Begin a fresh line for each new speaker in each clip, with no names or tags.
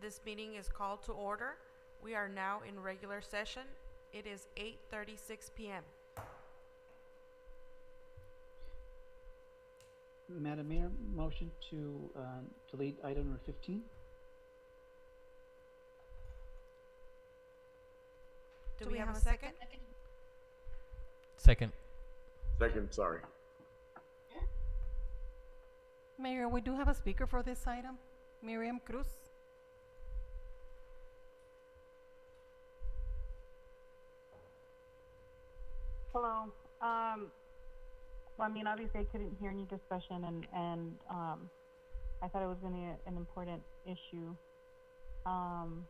This meeting is called to order. We are now in regular session. It is 8:36 PM.
Madam Mayor, motion to um, delete item number 15?
Do we have a second?
Second.
Second, sorry.
Mayor, we do have a speaker for this item, Miriam Cruz.
Hello. Um, well, I mean, obviously I couldn't hear any discussion and, and, um, I thought it was gonna be a- an important issue. Um,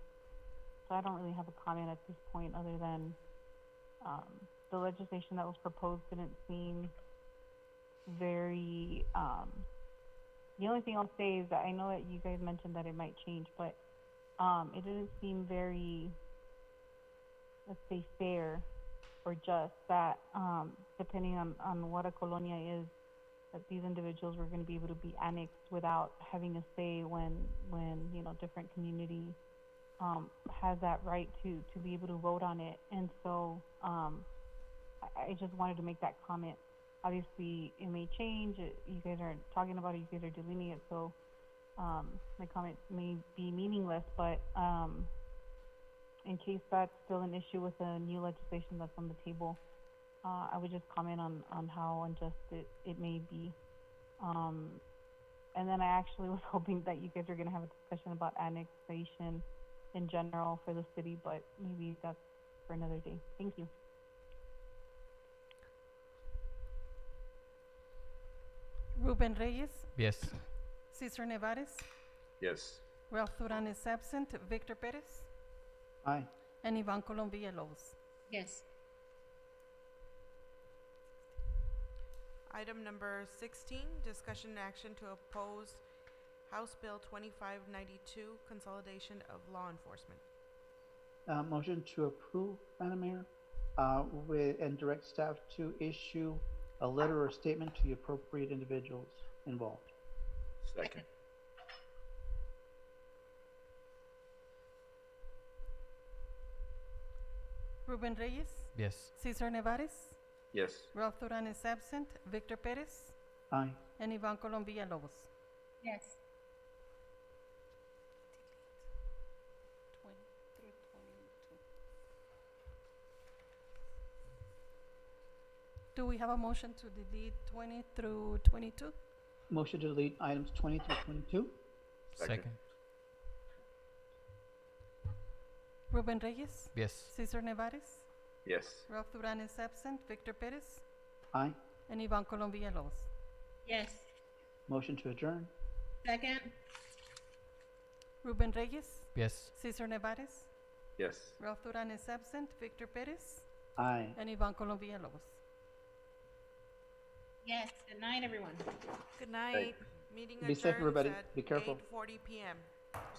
so I don't really have a comment at this point other than, um, the legislation that was proposed didn't seem very, um, the only thing I'll say is that I know that you guys mentioned that it might change, but, um, it didn't seem very, let's say fair or just that um, depending on, on what a colonia is, that these individuals were going to be able to be annexed without having a say when when you know different community um, has that right to to be able to vote on it. And so um, I, I just wanted to make that comment. Obviously, it may change. It, you guys aren't talking about it. You guys are deleting it, so um, my comment may be meaningless. But um, in case that's still an issue with the new legislation that's on the table, uh, I would just comment on, on how unjust it, it may be. Um, and then I actually was hoping that you guys were going to have a discussion about annexation in general for the city, but maybe that's for another day. Thank you.
Ruben Reyes,
Yes.
Cesar Nevares,
Yes.
Ralph Duran is absent, Victor Perez,
Aye.
and Ivan Colom Villalobos.
Yes,
Item number 16, discussion and action to oppose House Bill 2592, consolidation of law enforcement.
Uh, Motion to approve, Madam Mayor, uh, with, and direct staff to issue a letter or statement to the appropriate individuals involved.
Second.
Ruben Reyes,
Yes.
Cesar Nevares,
Yes.
Ralph Duran is absent, Victor Perez,
Aye.
and Ivan Colom Villalobos.
yes,
Do we have a motion to delete twenty through twenty-two?
Motion to delete items 20 through 22?
Second.
Ruben Reyes,
Yes.
Cesar Nevares,
Yes.
Ralph Duran is absent, Victor Perez,
Aye.
and Ivan Colom Villalobos.
yes.
Motion to adjourn?
Second,
Ruben Reyes,
Yes.
Cesar Nevares,
Yes.
Ralph Duran is absent, Victor Perez,
Aye.
and Ivan Colom Villalobos.
yes. Good night, everyone.
Good night. Meeting
Be safe,
adjourns
everybody. Be
at
careful.
8:40 PM.